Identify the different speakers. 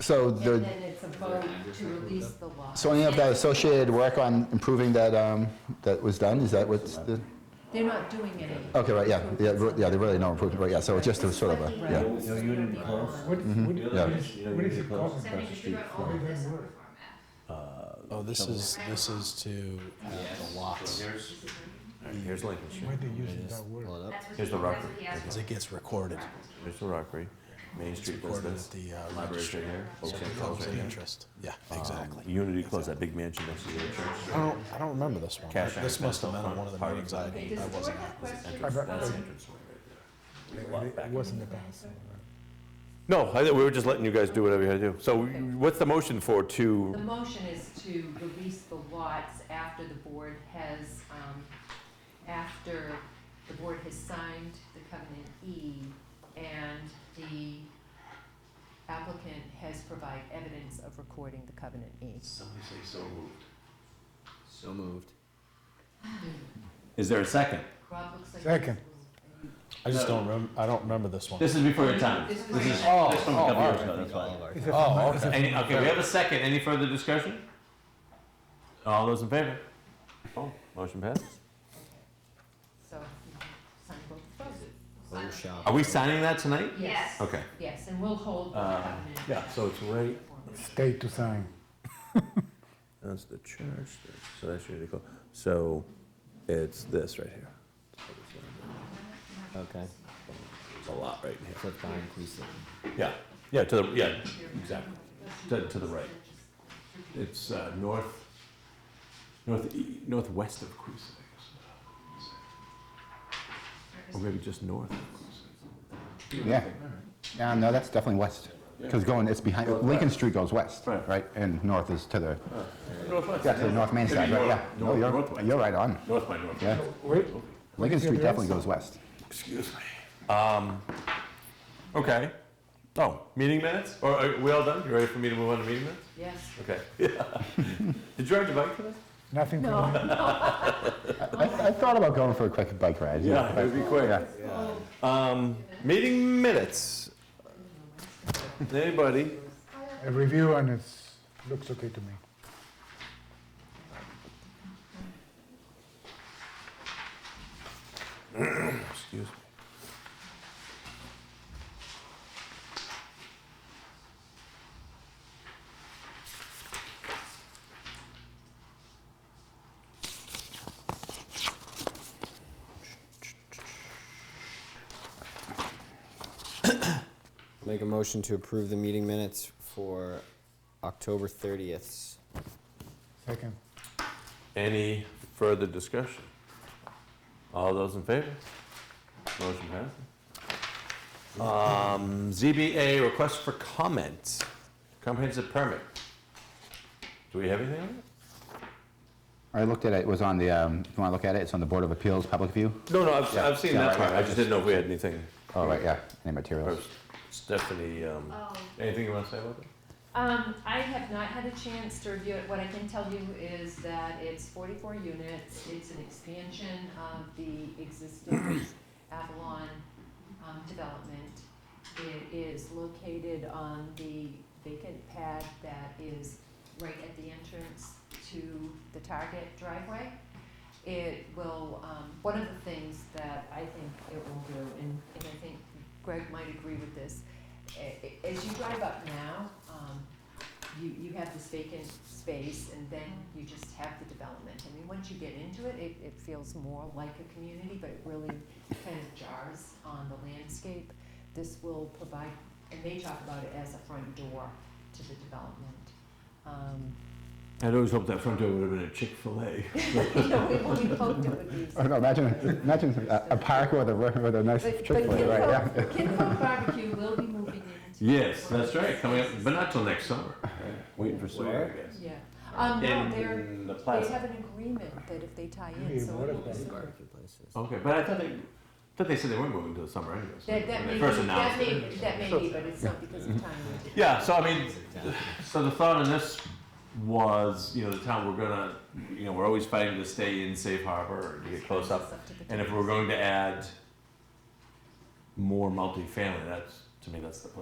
Speaker 1: So
Speaker 2: Um, And
Speaker 1: the,
Speaker 2: then it's a vote to release the law.
Speaker 1: so any of that associated work on improving that, um, that was done, is that what's the,
Speaker 2: They're not doing any.
Speaker 1: okay, right, yeah, yeah, re- yeah, there really no improvement, right, yeah, so it's just a sort of a, yeah.
Speaker 3: No unit in close?
Speaker 4: What, what,
Speaker 1: yeah.
Speaker 4: what is, what is it called?
Speaker 5: Across the street
Speaker 4: What
Speaker 5: from,
Speaker 4: is that word?
Speaker 5: uh.
Speaker 6: Oh, this is, this is to add the lots.
Speaker 3: Here's, here's Lincoln
Speaker 4: Why
Speaker 3: Street,
Speaker 4: they using that word?
Speaker 6: Pull it up,
Speaker 3: here's the Rockford,
Speaker 6: because it gets recorded,
Speaker 3: here's the Rockery, Main Street
Speaker 6: recorded at
Speaker 3: residence,
Speaker 6: the uh,
Speaker 3: library Um,
Speaker 6: registry.
Speaker 3: right here, Oak
Speaker 6: So
Speaker 3: Hill
Speaker 6: it
Speaker 3: Close
Speaker 6: becomes
Speaker 3: right
Speaker 6: an
Speaker 3: here.
Speaker 6: interest. Yeah, exactly.
Speaker 3: Unity Close, that big mansion next to the church.
Speaker 6: I don't, I don't remember this one.
Speaker 3: Cash
Speaker 6: This
Speaker 3: access
Speaker 6: must have
Speaker 3: up
Speaker 6: been on
Speaker 3: front,
Speaker 6: one of the
Speaker 3: parking
Speaker 6: meetings I,
Speaker 3: lot.
Speaker 6: I wasn't at.
Speaker 3: Entrance,
Speaker 4: bet-
Speaker 2: Um,
Speaker 3: that's the entrance way right there.
Speaker 4: It it wasn't about.
Speaker 7: No, I, thi- we were just letting you guys do whatever you had to do. So what's the motion for to,
Speaker 2: The motion is to release the lots after the board has, um, after the board has signed the covenant E and the applicant has provided evidence of recording the covenant E.
Speaker 3: Somebody say so moved.
Speaker 5: So moved. Is there a second?
Speaker 2: Rob looks like.
Speaker 4: Second.
Speaker 6: I just don't rem, I don't remember this one.
Speaker 5: This is before your time.
Speaker 2: This
Speaker 5: This
Speaker 2: is-
Speaker 5: is, this is
Speaker 6: Oh,
Speaker 5: from a
Speaker 6: oh,
Speaker 5: couple years
Speaker 6: alright.
Speaker 5: ago, that's why.
Speaker 4: Is it
Speaker 6: Oh,
Speaker 4: from- is it
Speaker 5: Any, okay, we have a second. Any further discussion? All those in favor?
Speaker 3: Oh, motion passes.
Speaker 2: So, you can sign both of those.
Speaker 5: Oh, shop.
Speaker 7: are we signing that tonight?
Speaker 2: Yes,
Speaker 7: Okay.
Speaker 2: yes, and we'll hold the
Speaker 5: Uh,
Speaker 2: covenant.
Speaker 3: So it's right,
Speaker 4: State to sign.
Speaker 3: that's the church, that's- so that's Unity Close. So it's this right here.
Speaker 5: Okay,
Speaker 3: It's a lot right here.
Speaker 5: so it's not inclusive.
Speaker 3: Yeah, yeah, to the, yeah, exactly. To, to the right. It's uh, north, north, e, northwest of Cruise, I guess. Or maybe just north of Cruise.
Speaker 1: Yeah. Yeah, no, that's definitely west, because going, it's behind, Lincoln Street goes west,
Speaker 3: Right.
Speaker 1: right, and north is to the,
Speaker 3: Northwest.
Speaker 1: yeah, to the North Main side, right, yeah. No,
Speaker 3: North-
Speaker 1: you're,
Speaker 3: northwest.
Speaker 1: you're right on,
Speaker 3: North by north.
Speaker 1: yeah.
Speaker 4: Wait,
Speaker 1: Lincoln Street definitely goes west.
Speaker 3: Excuse me.
Speaker 7: Okay.
Speaker 3: Oh,
Speaker 7: Meeting minutes? Or are we all done? You ready for me to move on to meeting minutes?
Speaker 2: Yes.
Speaker 7: Okay. Did you ride your bike for this?
Speaker 4: nothing for me.
Speaker 1: I, I thought about going for a quick bike ride. you know,
Speaker 7: Yeah, it would be
Speaker 1: but-
Speaker 7: quick.
Speaker 1: yeah.
Speaker 7: Um, meeting minutes. Anybody?
Speaker 4: A review and it's, looks okay to me.
Speaker 3: excuse me.
Speaker 5: Make a motion to approve the meeting minutes for October thirtieth.
Speaker 4: Second.
Speaker 7: Any further discussion? All those in favor? Motion passes. Um, ZBA request for comment, comprehensive permit. Do we have anything on
Speaker 1: I looked at it, it was on the, um, if you want to look at it, it's on the Board of Appeals, Public View.
Speaker 7: it? No, no, I've,
Speaker 1: Yeah,
Speaker 7: I've seen
Speaker 1: yeah,
Speaker 7: that
Speaker 1: right,
Speaker 7: part,
Speaker 1: right,
Speaker 7: I just didn't know if we had anything.
Speaker 1: Oh, right, yeah, any materials.
Speaker 7: Stephanie, um, anything you want to say about that?
Speaker 2: Um, I have not had a chance to review it. What I can tell you is that it's forty-four units. It's an expansion of the existing Avalon, um, development. It is located on the vacant pad that is right at the entrance to the Target driveway. It will, um, one of the things that I think it will do, and, and I think Greg might agree with this, a- a- as you drive up now, um, you, you have this vacant space and then you just have the development. I mean, once you get into it, it, it feels more like a community, but it really kind of jars on the landscape. This will provide, and they talk about it as a front door to the development. Um,
Speaker 3: I'd always hoped that front door would have been a Chick-fil-A.
Speaker 2: you know, we, we hoped it would be.
Speaker 1: Oh, no, imagine, imagine a a park with a, with a nice
Speaker 2: But, but
Speaker 1: Chick-fil-A, right, yeah.
Speaker 2: Kinfolk, Kinfolk Barbecue will be moving into.
Speaker 3: Yes, that's right, coming up, but not till next summer. Waiting for
Speaker 5: Where?
Speaker 3: summer, I guess.
Speaker 2: Yeah, um, no, they're,
Speaker 3: In the
Speaker 2: they
Speaker 3: plaza.
Speaker 2: have an agreement that if they tie in,
Speaker 4: Yeah,
Speaker 2: so.
Speaker 4: what
Speaker 2: it
Speaker 4: if
Speaker 2: will
Speaker 4: they-
Speaker 2: be-
Speaker 3: Okay, but I thought they, thought they said they weren't moving till the summer anyway. so
Speaker 2: That, that may,
Speaker 3: when they
Speaker 2: be-
Speaker 3: first
Speaker 2: that
Speaker 3: announced
Speaker 2: may,
Speaker 3: it. Mm-hmm.
Speaker 2: that may be, but it's not because of time.
Speaker 3: Yeah, so I mean, so the thought on this was, you know, the town, we're gonna, you know, we're always fighting to stay in safe harbor or to get close up. And if we're going to add more multifamily, that's, to me, that's the place.